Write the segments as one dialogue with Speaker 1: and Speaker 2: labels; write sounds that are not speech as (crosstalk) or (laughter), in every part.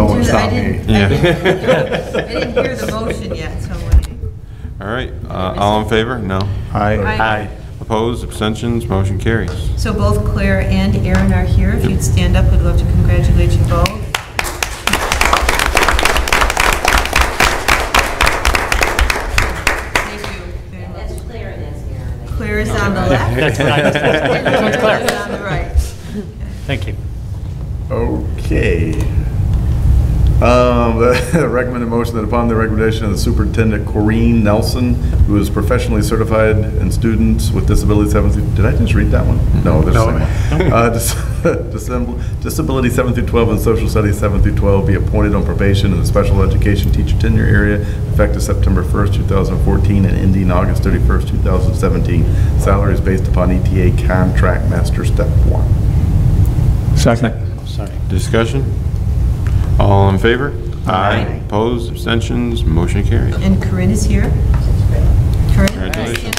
Speaker 1: stop
Speaker 2: I
Speaker 1: me.
Speaker 2: didn't- (laughs) I didn't-
Speaker 3: Yeah.
Speaker 2: I didn't
Speaker 1: (laughs)
Speaker 2: hear the motion yet, so uh, I.
Speaker 3: All right, uh, all in favor? No.
Speaker 1: Aye.
Speaker 3: Opposed, abstentions, motion carries.
Speaker 2: So both Claire and Aaron are here. If you'd stand up, we'd love to congratulate you both. Thank you very much.
Speaker 4: That's clear and that's Aaron.
Speaker 2: Claire is on the left.
Speaker 5: That's right. Which one's Claire?
Speaker 2: Aaron is on the right.
Speaker 5: Thank you.
Speaker 1: Okay. Um, (laughs) the Recommended motion that upon the recommendation of the superintendent Corrine Nelson, who is professionally certified in students with disabilities seven through, did I just read that one? No, there's the same one. Uh, dis- (laughs) disable- Disability seven through 12 and social studies seven through 12 be appointed on probation in the special education teacher tenure area effective September 1st, 2014 and ending August 31st, 2017. Salary is based upon ETA contract master step one.
Speaker 6: Second.
Speaker 5: Sorry.
Speaker 3: Discussion? All in favor?
Speaker 2: Aye.
Speaker 3: Opposed, abstentions, motion carries.
Speaker 2: And Corinne is here. Corinne?
Speaker 3: Congratulations.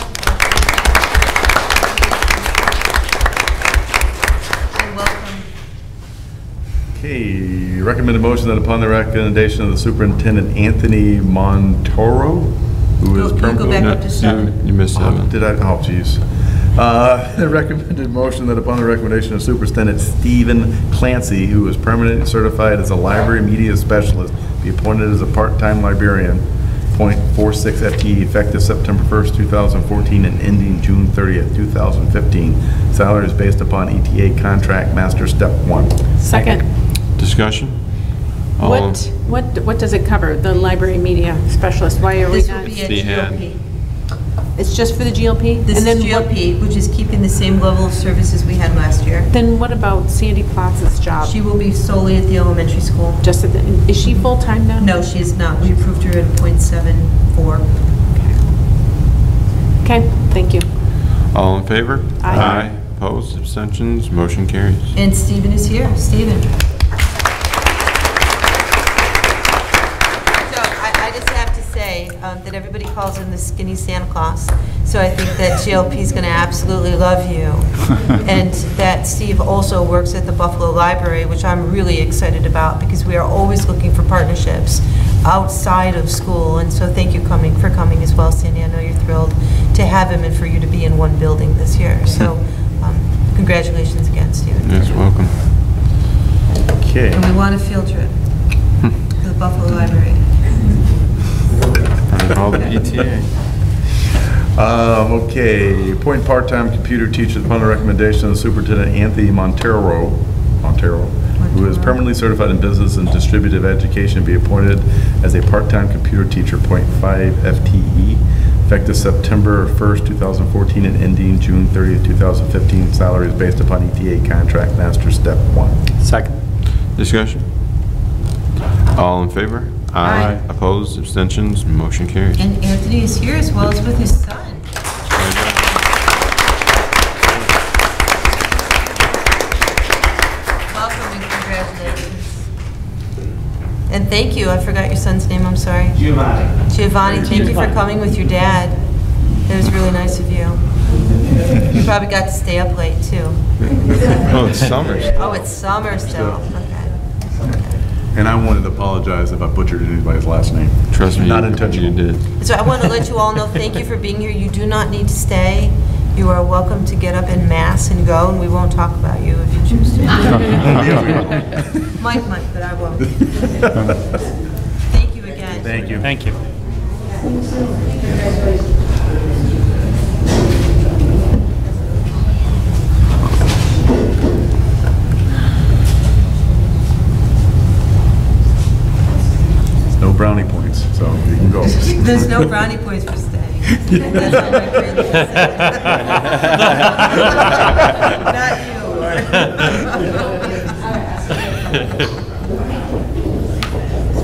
Speaker 2: And welcome.
Speaker 1: Okay, recommended motion that upon the recommendation of the superintendent Anthony Montoro, who is
Speaker 2: Go-
Speaker 1: permanently...
Speaker 2: go back up to Oh, seven.
Speaker 3: You missed
Speaker 1: Oh,
Speaker 3: seven.
Speaker 1: Did I, oh geez. Uh, (laughs) The recommended motion that upon the recommendation of Superintendent Stephen Clancy, who is permanently certified as a library media specialist, be appointed as a part-time librarian, .46 FTE, E, effective September 1st, 2014, and ending June 30th, 2015. Salary is based upon ETA contract master step one.
Speaker 7: Second.
Speaker 3: Discussion? All in-
Speaker 7: What, what, what does it cover, the library media specialist? Why are we
Speaker 2: This
Speaker 7: not?
Speaker 2: will be
Speaker 3: The
Speaker 2: a
Speaker 3: ad.
Speaker 2: GOP.
Speaker 7: It's just for the GLP?
Speaker 2: This
Speaker 7: And
Speaker 2: is
Speaker 7: then what-
Speaker 2: GOP, which is keeping the same level of services we had last year.
Speaker 7: Then what about Sandy Plaza's job?
Speaker 2: She will be solely at the elementary school.
Speaker 7: Just, at the- is she full-time now?
Speaker 2: No, she is not. We approved her at .74.
Speaker 7: Okay, thank you.
Speaker 3: All in favor?
Speaker 7: Aye.
Speaker 3: Opposed, abstentions, motion carries.
Speaker 2: And Stephen is here. Stephen. So I, I just have to say um, that everybody calls him the skinny Santa Claus. So I think that GLP is going to absolutely love you. And that Steve also works at the Buffalo Library, which I'm really excited about because we are always looking for partnerships outside of school. And so thank you coming, for coming as well, Sandy. I know you're thrilled to have him and for you to be in one building this year. So um, congratulations again, Stephen.
Speaker 3: Yes, welcome.
Speaker 1: Okay.
Speaker 2: And we want a field trip to the Buffalo Library.
Speaker 3: All the ETA.
Speaker 1: Um, okay, appoint part-time computer teachers upon the recommendation of Superintendent Anthony Montero, Montero, who is permanently certified in business and distributive education, be appointed as a part-time computer teacher, .5 FTE, E, effective September 1st, 2014, and ending June 30th, 2015. Salary is based upon ETA contract master step one.
Speaker 5: Second.
Speaker 3: Discussion? All in favor?
Speaker 2: Aye.
Speaker 3: Opposed, abstentions, motion carries.
Speaker 2: And Anthony is here as well as with his son. Welcome and congratulations. And thank you, I forgot your son's name, I'm sorry. Giovanni. Giovanni, thank you for coming with your dad. That was really nice of you. You probably got to stay up late, too.
Speaker 3: Oh, it's Summers.
Speaker 2: Oh, it's summer still. Okay.
Speaker 1: And I wanted to apologize if I butchered anybody's last name.
Speaker 3: Trust me,
Speaker 1: Not
Speaker 3: you-
Speaker 1: intentional.
Speaker 3: you did.
Speaker 2: So I want to let you all know, thank you for being here. You do not need to stay. You are welcome to get up in mass and go, and we won't talk about you if you choose
Speaker 1: (laughs)
Speaker 2: to. Mike might, but I won't. Thank you again.
Speaker 1: Thank you.
Speaker 5: Thank you.
Speaker 1: (laughs) No brownie points, so you can go.
Speaker 2: (laughs) There's no brownie points for staying. That's all my friends say. Not you.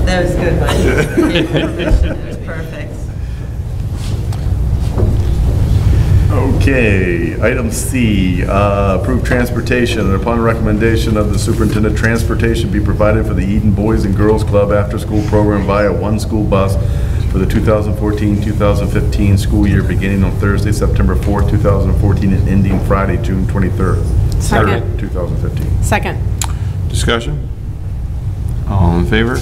Speaker 2: That was good, Mike. That was perfect.
Speaker 1: Okay, item C, uh, approve transportation, and upon recommendation of the superintendent, transportation be provided for the Eden Boys and Girls Club after-school program via one school bus for the 2014-2015 school year, beginning on Thursday, September 4th, 2014, and ending Friday, June 23rd,
Speaker 7: Second.
Speaker 1: 2015.
Speaker 7: Second.
Speaker 3: Discussion? All in favor?